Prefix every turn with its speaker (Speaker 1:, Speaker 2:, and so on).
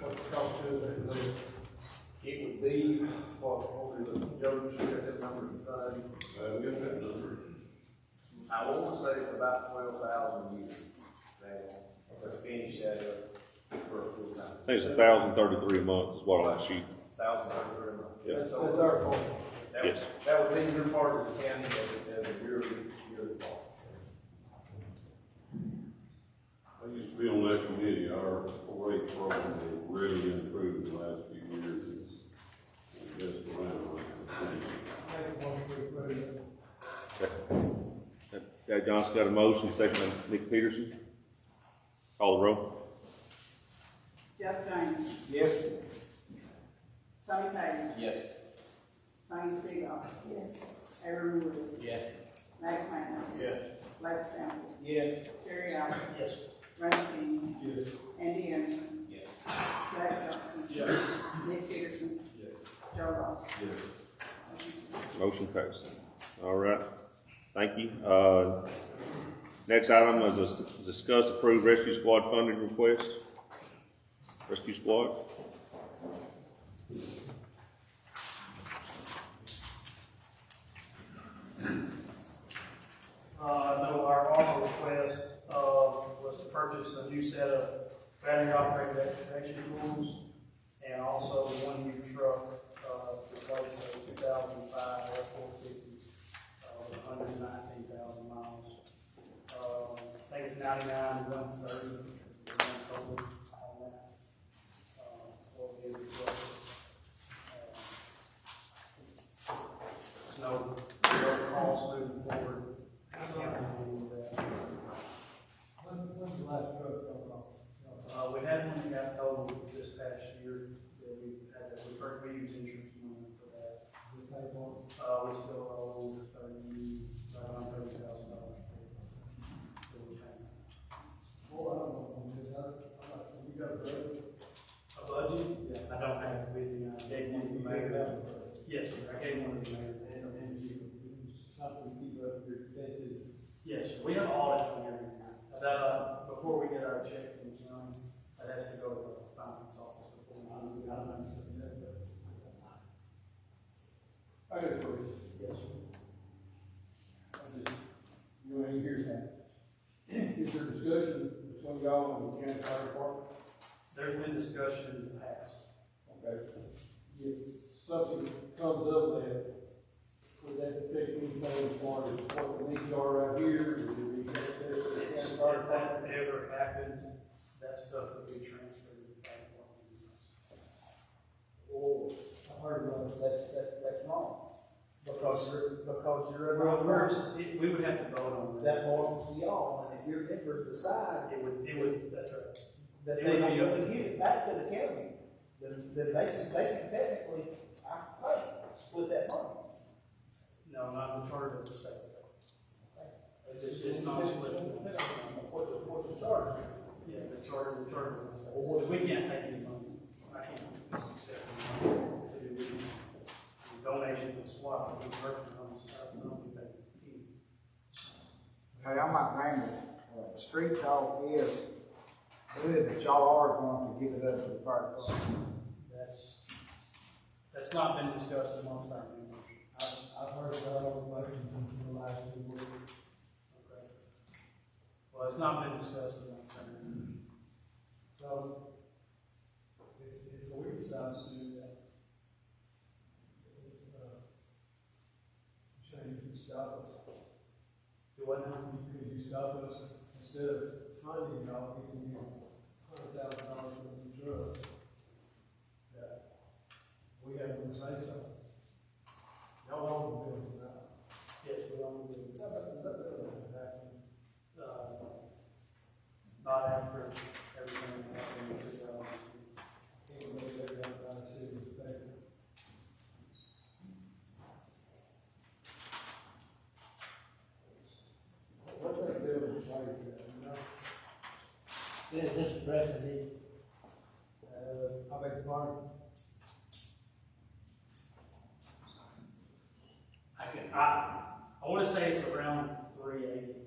Speaker 1: what the cost is, it would, it would be, what, what we look, Joe, just got that number, uh,
Speaker 2: Uh, we got that number.
Speaker 1: I want to say it's about twelve thousand a year, now, to finish that up for a full time.
Speaker 3: I think it's a thousand thirty-three a month is what I shoot.
Speaker 1: Thousand dollars a month.
Speaker 3: Yeah.
Speaker 1: That's, that's our part. That would-
Speaker 3: Yes.
Speaker 1: That would be your part as a county, as, a- as a your, your part.
Speaker 2: I used to be on that committee, our four H program has really improved in the last few years, it's just around like the
Speaker 3: Chad Johnson got a motion, second by Nick Peterson. Call the roll.
Speaker 4: Jeff James.
Speaker 1: Yes.
Speaker 4: Tommy Page.
Speaker 5: Yes.
Speaker 4: Tony Seagull. Yes. Aaron Wood.
Speaker 5: Yes.
Speaker 4: Nate McManus.
Speaker 1: Yes.
Speaker 4: Blake Sample.
Speaker 1: Yes.
Speaker 4: Terry Allen.
Speaker 1: Yes.
Speaker 4: Ronnie King.
Speaker 1: Yes.
Speaker 4: Andy Anderson.
Speaker 5: Yes.
Speaker 4: Zach Johnson. Nick Peterson.
Speaker 1: Yes.
Speaker 4: Joe Ross.
Speaker 2: Yes.
Speaker 3: Motion passed. All right. Thank you. Uh, next item is a s- discuss approved rescue squad funding request. Rescue squad.
Speaker 6: Uh, no, our ARPA request, uh, was to purchase a new set of battery operated excavation tools and also one new truck, uh, to replace a two thousand five F four fifty, uh, with hundred and nineteen thousand miles. Uh, I think it's ninety-nine, one thirty, one total on that. Uh, what we requested. Uh, There's no, no cost moving forward. Uh, we had one that got totaled this past year, that we had, that we, per- we used insurance money for that. Uh, we still owe thirty, around thirty thousand dollars for, for the payment. A budget? Yeah. I don't have it with me, I gave one to the
Speaker 1: uh,
Speaker 6: mayor. Yes, sir, I gave one to the mayor. Yes, sir. we have audit on everything. That, uh, before we get our check from the county, that has to go to the finance office before we, I don't know, so, yeah, but.
Speaker 1: I got a question.
Speaker 6: Yes, sir.
Speaker 1: I just, you know, here's that. Is there discussion between y'all and the county fire department?
Speaker 6: There's been discussion in the past.
Speaker 1: Okay. If something comes up that, would that affect anything as far as what the needs are right here? Would it be access to the
Speaker 6: If
Speaker 1: county fire
Speaker 6: that
Speaker 1: department?
Speaker 6: ever happened, that stuff would be transferred to the county department.
Speaker 7: Well, I heard about it, that's, that, that's wrong. Because you're, because you're
Speaker 6: Well,
Speaker 7: a member,
Speaker 6: first, it- we would have to vote on that.
Speaker 7: that belongs to y'all, and if your members decide
Speaker 6: It would, it would, that's right.
Speaker 7: that
Speaker 6: It
Speaker 7: they
Speaker 6: would be
Speaker 7: don't
Speaker 6: up
Speaker 7: want to give it back to the county, then, then they can, they can technically, I think, split that money.
Speaker 6: No, not the charter of the state. It's, it's not split.
Speaker 7: Depends on What, the- what the charge is.
Speaker 6: Yeah, the charter, the charter of the state.
Speaker 7: Well, what is-
Speaker 6: We can't take any money. I can't accept any money. to do any Donation to SWAT, we work on, I don't think they can.
Speaker 8: Hey, I might name it, uh, street dog is good, but y'all are going to give it up to the fire department.
Speaker 6: That's, that's not been discussed amongst our members.
Speaker 7: I've, I've heard about all the motions in the last two weeks.
Speaker 6: Okay. Well, it's not been discussed amongst our members.
Speaker 7: So, if, if we decide to do that, uh, so you can stop us,
Speaker 6: Do what now?
Speaker 7: could you stop us instead of funding y'all, giving you hundred thousand dollars for the drugs? That we have to say something. Y'all all been doing that.
Speaker 6: Yes, we only do.
Speaker 7: Not that- not that it happened.
Speaker 6: uh, not after everything that happened, because, uh,
Speaker 7: Anybody that got by the city was paid. What's that building like, you know?
Speaker 9: Is this precedent?
Speaker 7: Uh, I beg your pardon?
Speaker 6: I can, I, I wanna say it's around three eighty,